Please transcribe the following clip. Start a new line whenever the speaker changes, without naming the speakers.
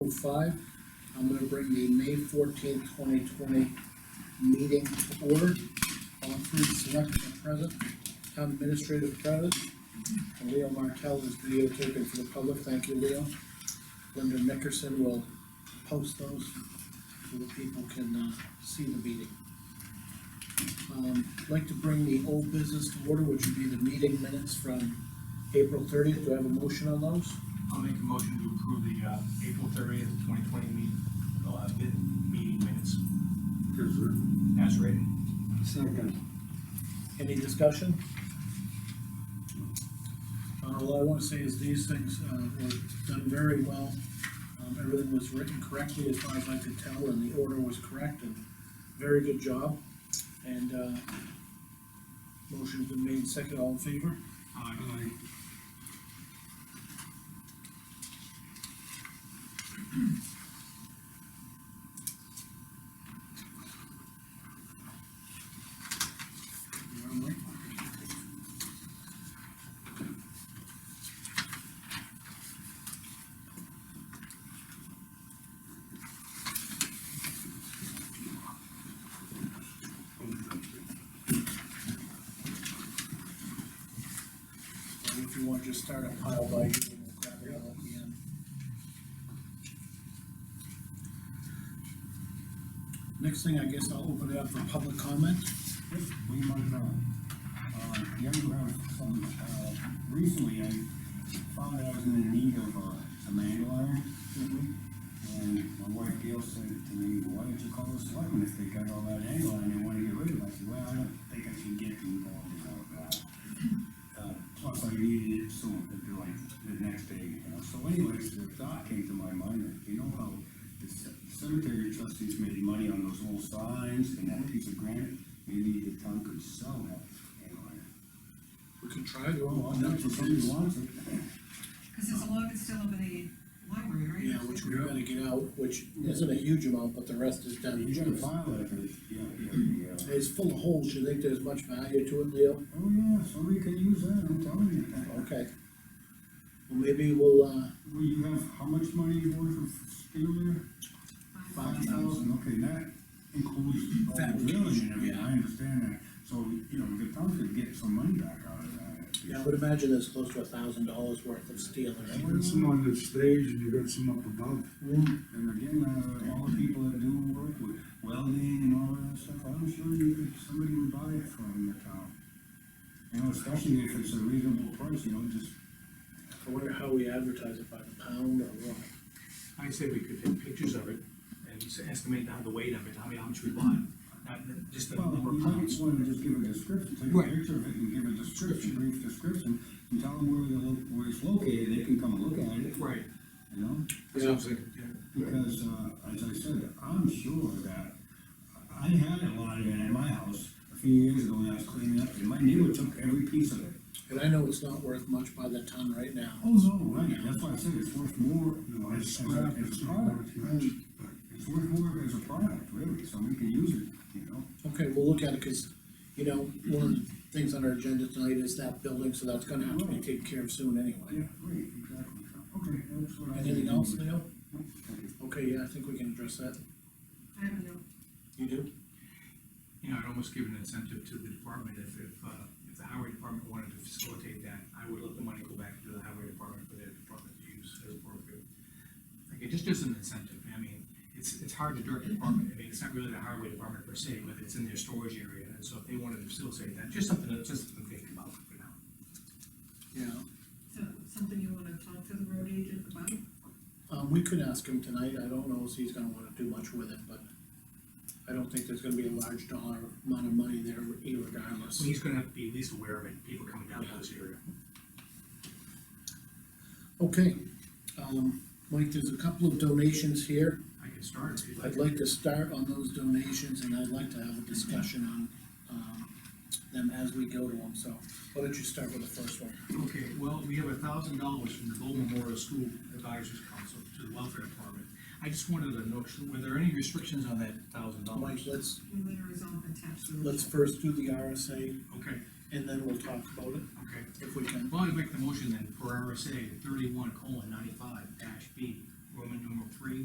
two five. I'm gonna bring the May fourteenth, twenty twenty meeting to order. All three selectmen are present, town administrator present. And Leo Martell is videotaping for the public, thank you, Leo. Linda Nickerson will post those so that people can, uh, see the meeting. Um, I'd like to bring the old business to order, which would be the meeting minutes from April thirtieth, do I have a motion on those?
I'll make a motion to approve the, uh, April thirtieth, twenty twenty meeting, uh, bid, meeting minutes
Is there
as written.
second?
Any discussion? Uh, all I wanna say is these things, uh, were done very well, um, everything was written correctly as far as I could tell, and the order was correct, and very good job, and, uh, motion's been made, second, all in favor?
Aye.
All right. And if you want, just start a pile by you, and we'll grab it all at the end. Next thing, I guess I'll open it up for public comment.
We might, uh, uh, you ever have some, uh, recently I found that I was in need of, uh, some angle iron. And my wife Gail said to me, why don't you call the selectmen if they got all that angle iron they wanna get rid of it? I said, well, I don't think I should get involved in all that. Uh, plus I needed it soon, to do like the next day, you know, so anyways, the thought came to my mind, that you know how the c- cemetery trustees made money on those old signs and that piece of granite, maybe the town could sell that. and, uh,
We can try to.
Oh, well, that's what somebody wants it.
Cause there's a lot that's still over the library, right?
Yeah, which we gotta get out, which isn't a huge amount, but the rest is done.
You gotta file it, but, yeah, yeah, yeah.
It's full of holes, you think there's much value to it, Leo?
Oh, yeah, somebody could use that, I'm telling you.
Okay. Well, maybe we'll, uh,
Well, you have, how much money you want for steel there?
Um,
Five thousand, okay, that includes all the village and everything, I understand that, so, you know, the town could get some money back out of that.
yeah, I would imagine there's close to a thousand dollars worth of steel in it.
You got some on the stage and you got some up above.
Mm,
And again, uh, all the people that do work with welding and all that stuff, I'm sure you could, somebody would buy it from the town. You know, especially if it's a reasonable price, you know, just,
I wonder how we advertise it, by the pound or what?
I say we could take pictures of it and just estimate how the weight of it, how many, how much we bought, not, the- just the
well,
number
you
of
might
pounds.
wanna just give a description, take
Right.
a picture of it and give a description, brief description, and tell them where the, lo- where it's located, they can come look at it,
Right,
you know?
that sounds like, yeah.
Because, uh, as I said, I'm sure that, I had a lot of it at my house a few years ago when I was cleaning up, and my neighbor took every piece of it.
And I know it's not worth much by the ton right now.
Oh, no, right, that's why I said it's worth more, you know, as, as a, as a product, it's worth more as a product, really, so we can use it, you know?
Okay, we'll look at it, cause, you know, one of the things on our agenda tonight is that building, so that's gonna have to be taken care of soon anyway.
Yeah, right, exactly, so, okay, that's what I.
Anything else, Leo?
Okay.
Okay, yeah, I think we can address that.
I don't know,
You do?
You know, I'd almost give an incentive to the department if, if, uh, if the highway department wanted to facilitate that, I would let the money go back to the highway department for their department to use as appropriate. Like, it just is an incentive, I mean, it's, it's hard to direct the department, I mean, it's not really the highway department per se, but it's in their storage area, and so if they wanted to facilitate that, just something, to- just something to think about for now.
Yeah.
so, something you wanna talk to the road agent about?
Um, we could ask him tonight, I don't know if he's gonna wanna do much with it, but I don't think there's gonna be a large dollar amount of money there irregardless.
So he's gonna have to be at least aware of it, people coming down to this area.
Okay, um, Mike, there's a couple of donations here,
I can start if you'd like.
I'd like to start on those donations, and I'd like to have a discussion on, um, them as we go to them, so why don't you start with the first one?
Okay, well, we have a thousand dollars from the Gold Memorial School Advisors Council to the Welfare Department. I just wanted to know, were there any restrictions on that thousand
Mike,
dollars?
let's,
The letter is all attached to the.
let's first do the RSA,
Okay,
and then we'll talk about it,
okay.
if we can.
Well, I make the motion then for RSA thirty-one colon ninety-five dash B, Roman numeral three,